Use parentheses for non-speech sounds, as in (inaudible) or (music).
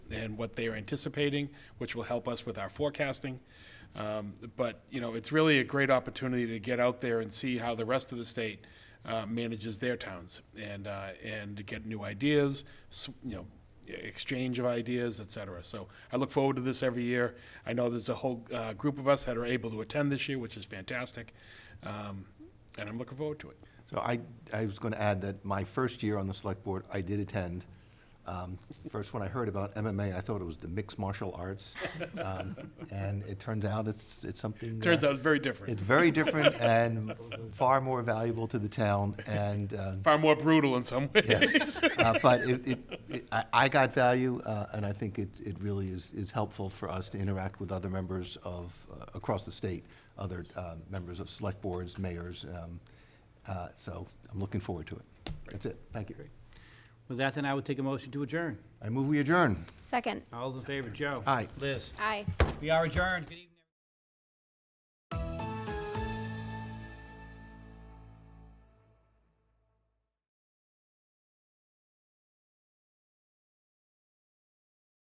and what they are anticipating, which will help us with our forecasting. Um, But, you know, it's really a great opportunity to get out there and see how the rest of the state uh, manages their towns and, uh, and to get new ideas, s- you know, exchange of ideas, et cetera. So I look forward to this every year. I know there's a whole uh, group of us that are able to attend this year, which is fantastic. Um, And I'm looking forward to it. So I, I was going to add that my first year on the select board, I did attend. Um, First, when I heard about MMA, I thought it was the mixed martial (laughs) arts. Um, And it turns out it's, it's something. uh, Turns out it's very different, It's very different and far more valuable to the town and, uh, far more brutal in some ways. yes. (laughs) Uh, But it, it- it, I, I got value uh, and I think it, it really is, is helpful for us to interact with other members of, uh, across the state, other uh, members of select boards, mayors. um, uh, So I'm looking forward to it. That's it. Thank you. With that, then I would take a motion to adjourn. Uh, I move we adjourn. Second. All those in favor, Joe? Aye. Liz? Aye. We are adjourned. Good evening.